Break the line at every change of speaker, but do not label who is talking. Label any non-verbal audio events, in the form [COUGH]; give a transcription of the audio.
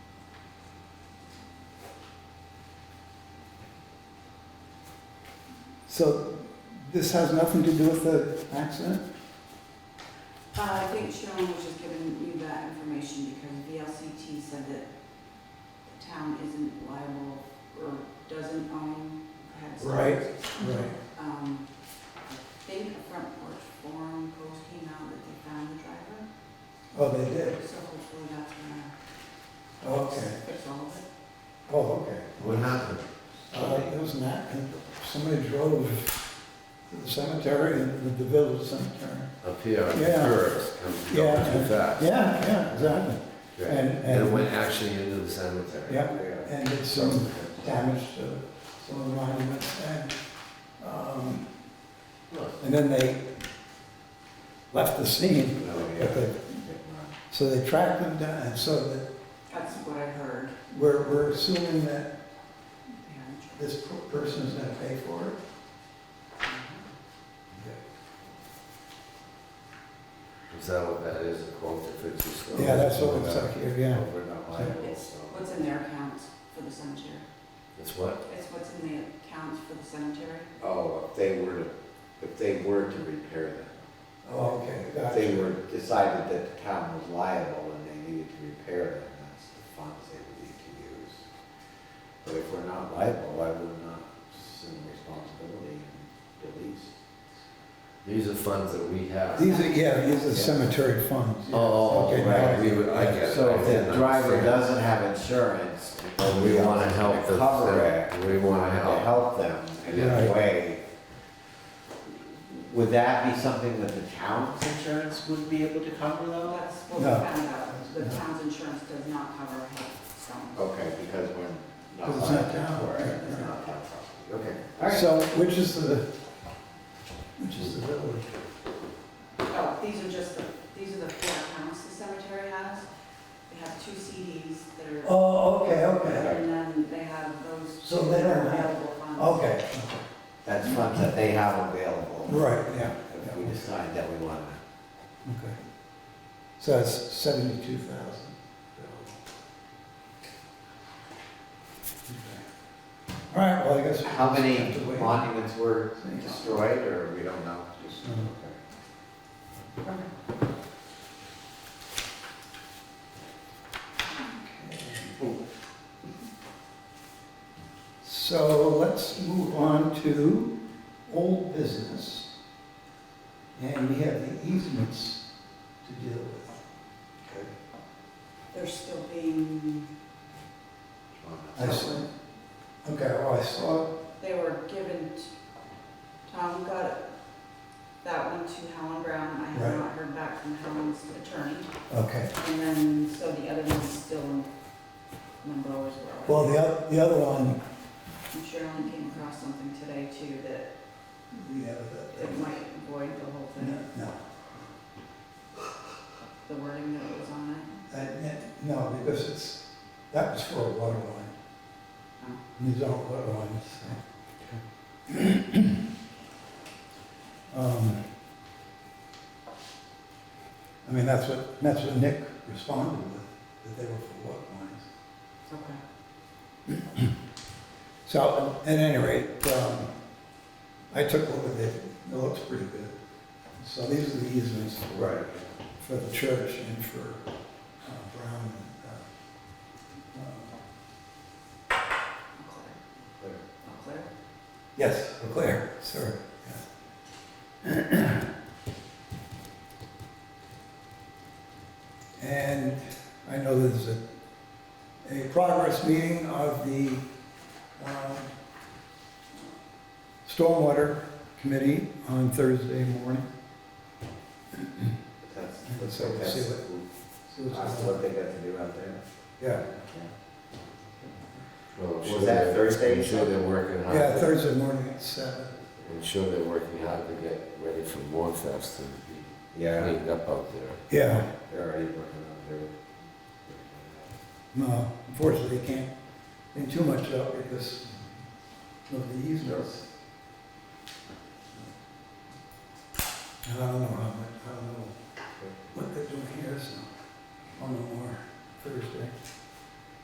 So this has nothing to do with the accident?
Uh, I think Sharon was just giving you that information because VLCT said that the town isn't liable or doesn't own, has.
Right, right.
Um, I think a front porch forum post came out that they found the driver,
Oh, they did?
so hopefully that's gonna
Okay.
fix all of it.
Oh, okay.
What happened?
Uh, it was an accident. Somebody drove to the cemetery, and the village cemetery.
Up here, the
Yeah.
curves come
Yeah.
going too fast.
Yeah, yeah, exactly.
Right.
and-
And it
and-
went actually into the cemetery.
Yeah, And it's some damage to some of the monuments and, um,
Oh,
and then they left the scene. but
yeah.
they- So they tracked them down, and so that
That's what I heard.
we're, we're assuming that
Yeah.
this person's gonna pay for it.
Is that what that is, a quote to fifty stories?
Yeah, that's what it's like here, yeah.
We're not liable,
It's
so.
what's in their accounts for the cemetery.
It's what?
It's what's in the accounts for the cemetery.
Oh, if they were to, if they were to repair that,
Oh, okay,
if they
gotcha.
were, decided that the town was liable and they needed to repair them, that's the funds they would need to use. But if we're not liable, I would not assume responsibility and release.
These are funds that we have.
These are, yeah, these are cemetery funds.
Oh,
Okay,
right,
now-
we would, I get it.
So
I
if
didn't
the driver
understand.
doesn't have insurance,
And we wanna help the,
Cover it.
we wanna
to
help.
help them in
Right.
a way. Would that be something that the town's insurance would be able to cover
Well,
though?
that's what we
No.
found out. The town's insurance does not cover health stones.
Okay, because we're not
Because it's not
liable
town,
for it,
right,
it's
right.
not town property, okay. All right.
So which is the, which is the village?
Oh, these are just the, these are the four accounts the cemetery has. They have two CDs that are,
Oh, okay, okay,
and then they have those.
So they don't have-
available funds.
okay,
That's funds that they have available,
right, yeah,
if we decide that we want to.
okay. So it's seventy-two thousand. All right, well, I guess. we'll
How many
have to wait.
monuments were destroyed, or we don't know? Just-
Mm.
okay.
So let's move on to old business. And we have the easements to deal with.
They're still being,
I see. Okay, well, I saw,
they were given, t- Tom got that one to Helen Brown. I
Right.
have not heard back from Helen's attorney.
okay.
And then, so the other one's still in limbo as well.
Well, the other, the other one,
And Sharon came across something today too, that
we have that.
it might void the whole
No,
thing,
no,
the wording that was on it.
that- that- no, because it's, that was for a water line.
Oh.
These aren't water lines. so. [CLEARS THROAT] Um, I mean, that's what, that's what Nick responded with, that they were for water lines.
Okay.
So, at any rate, um, I took a look at it, it looks pretty good. So these are the easements
Right.
for the church and for uh, Brown and, uh, uh,
I'll clear.
Clear.
I'll clear.
yes, Claire, sir. yeah. And I know there's a, a progress meeting of the um, Stormwater Committee on Thursday morning.
That's,
Let's
that's,
see what-
that's
So it's-
that's what they got to do out there.
Yeah,
Well, I'm
Was
sure
that
they're-
Thursday?
I'm sure they're working hard.
yeah, Thursday morning at seven.
I'm sure they're working hard to get ready for Morfest and be
Yeah,
cleaned up out there.
Yeah,
they're already working on their.
No, unfortunately, they can't clean too much up because of the easements. And I don't know how much, I don't know what they're doing here, so I'll know more Thursday.